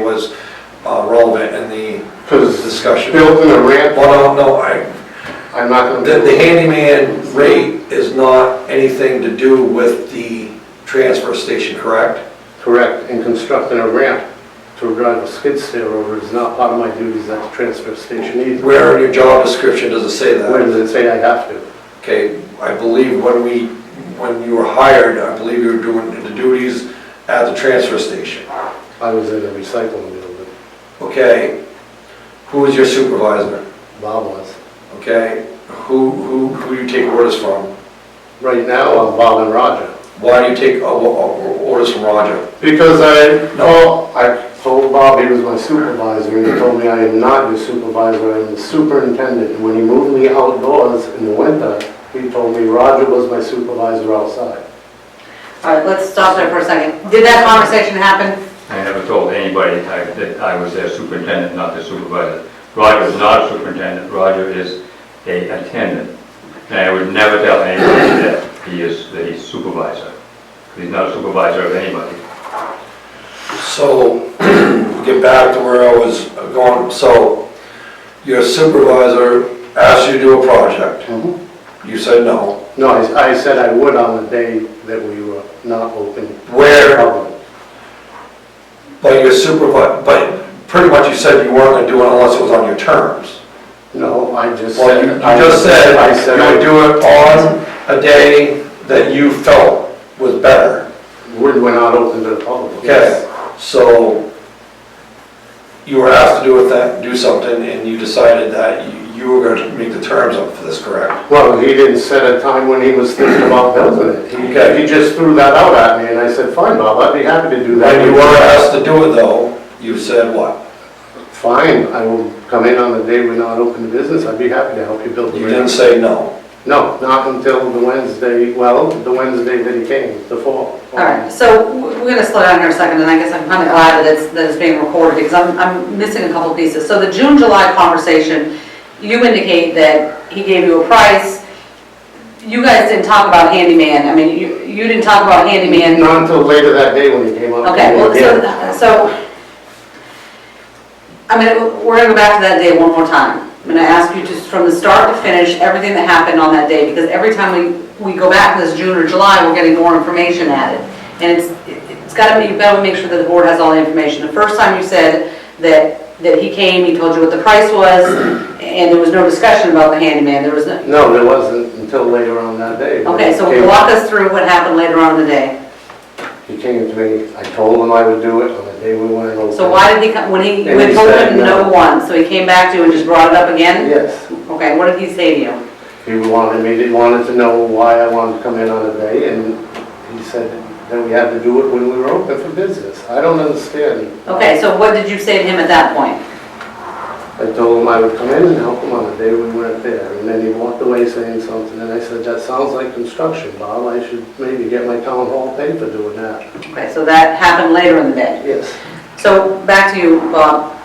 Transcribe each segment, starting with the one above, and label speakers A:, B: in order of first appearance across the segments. A: was uh, relevant in the
B: Because
A: discussion.
B: building a ramp,
A: Well, no, no, I,
B: I'm not gonna.
A: The,
B: do
A: the
B: it.
A: handyman rate is not anything to do with the transfer station, correct?
B: Correct, and constructing a ramp to drive a skid steer over is not part of my duties at the transfer station either.
A: Where in your job description does it say
B: Where
A: that?
B: does it say I have to?
A: Okay, I believe when we, when you were hired, I believe you were doing the duties at the transfer station,
B: I was in a recycling building,
A: okay? Who was your supervisor,
B: Bob was.
A: okay? Who, who, who you take orders from?
B: Right now, I'm Bob and Roger.
A: Why do you take uh, uh, orders from Roger?
B: Because I, no, I told Bob he was my supervisor, and he told me I am not your supervisor, I am the superintendent. And when he moved me outdoors in the winter, he told me Roger was my supervisor outside.
C: All right, let's stop there for a second. Did that conversation happen?
D: I never told anybody I- that I was their superintendent, not their supervisor. Roger is not a superintendent, Roger is a attendant. And I would never tell anybody that he is the supervisor. He's not a supervisor of anybody.
A: So, get back to where I was going, so your supervisor asked you to do a project, you said no.
B: No, I I said I would on the day that we were not open.
A: Where, but your supervisor, but pretty much you said you weren't gonna do it unless it was on your terms.
B: No, I just
A: Well,
B: said.
A: you you just said
B: I said
A: you would do it on a day that you felt was better.
B: We're we're not open to the public.
A: Okay, so you were asked to do with that, do something, and you decided that you- you were gonna make the terms up for this, correct?
B: Well, he didn't set a time when he was thinking about building it. He-
A: Okay.
B: He just threw that out at me, and I said, fine, Bob, I'd be happy to do that.
A: When you were asked to do it though, you said what?
B: Fine, I will come in on the day we're not open to business, I'd be happy to help you build the
A: You didn't
B: ramp.
A: say no.
B: No, not until the Wednesday, well, the Wednesday that he came, the fall.
C: All right, so w- we're gonna slow down here a second, and I guess I'm kind of glad that it's, that it's being recorded, because I'm, I'm missing a couple pieces. So the June-July conversation, you indicate that he gave you a price. You guys didn't talk about handyman, I mean, you, you didn't talk about handyman.
B: Not until later that day when he came up. to
C: Okay,
B: me
C: well,
B: again.
C: so, so, I mean, we're gonna go back to that day one more time. I'm gonna ask you just from the start to finish, everything that happened on that day, because every time we, we go back this June or July, we're getting more information added. And it's, it's gotta be, you gotta make sure that the board has all the information. The first time you said that, that he came, he told you what the price was, and there was no discussion about the handyman, there was no,
B: No, there wasn't until later on that day.
C: okay, so
B: He came-
C: walk us through what happened later on in the day.
B: He came to me, I told him I would do it on the day we went over.
C: So why did he come, when he,
B: And he
C: we told
B: said
C: him no
B: no.
C: one, so he came back to you and just brought it up again?
B: Yes,
C: Okay, what did he say to you?
B: he wanted me, he wanted to know why I wanted to come in on a day, and he said that we had to do it when we were open for business. I don't understand.
C: Okay, so what did you say to him at that point?
B: I told him I would come in and help him on the day we weren't there, and then he walked away saying something, and I said, that sounds like construction, Bob, I should maybe get my town hall paper doing that.
C: Okay, so that happened later in the day.
B: Yes,
C: So back to you, Bob.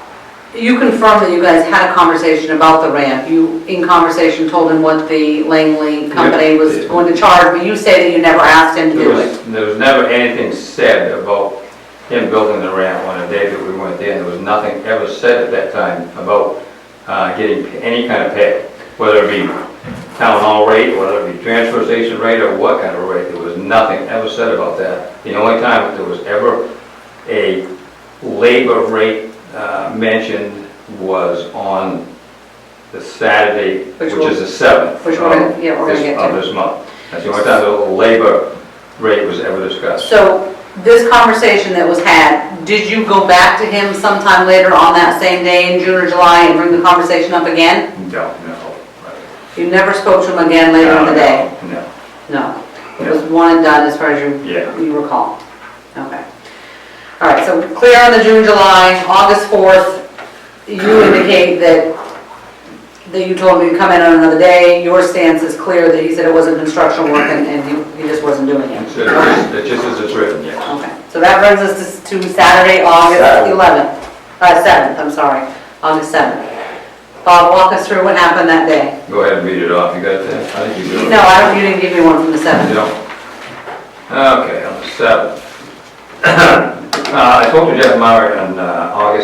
C: You confirmed that you guys had a conversation about the ramp. You, in conversation, told him what the Langley company was
D: Yeah.
C: going to charge, but you say that you never asked him to
D: There
C: do it.
D: was, there was never anything said about him building the ramp on the day that we went there. There was nothing ever said at that time about uh, getting any kind of pay, whether it be town hall rate, whether it be transfer station rate, or what kind of rate. There was nothing ever said about that. The only time there was ever a labor rate uh, mentioned was on the Saturday,
C: Which
D: which
C: we'll-
D: is the seventh.
C: which we're gonna- yeah, we're gonna get to.
D: Of this month. That's the only time the labor rate was ever discussed.
C: So this conversation that was had, did you go back to him sometime later on that same day in June or July and bring the conversation up again?
D: No, no.
C: You never spoke to him again later in the day?
D: No,
C: No, it was one and done as far as you,
D: Yeah.
C: you recall. Okay. All right, so clear on the June, July, August 4th, you indicate that, that you told me to come in on another day. Your stance is clear that he said it wasn't construction work and, and he- he just wasn't doing it.
D: So it's- it's just as it's written, yes.
C: Okay, so that brings us to to Saturday, August
A: Saturday.
C: 11th, uh, 7th, I'm sorry, August 7th. Bob, walk us through what happened that day.
D: Go ahead and read it off, you got that? I think you do. it.
C: No, I don't, you didn't give me one from the
D: You
C: 7th.
D: don't? Okay, on the seventh. Uh, I spoke to Jeff Myrick on uh,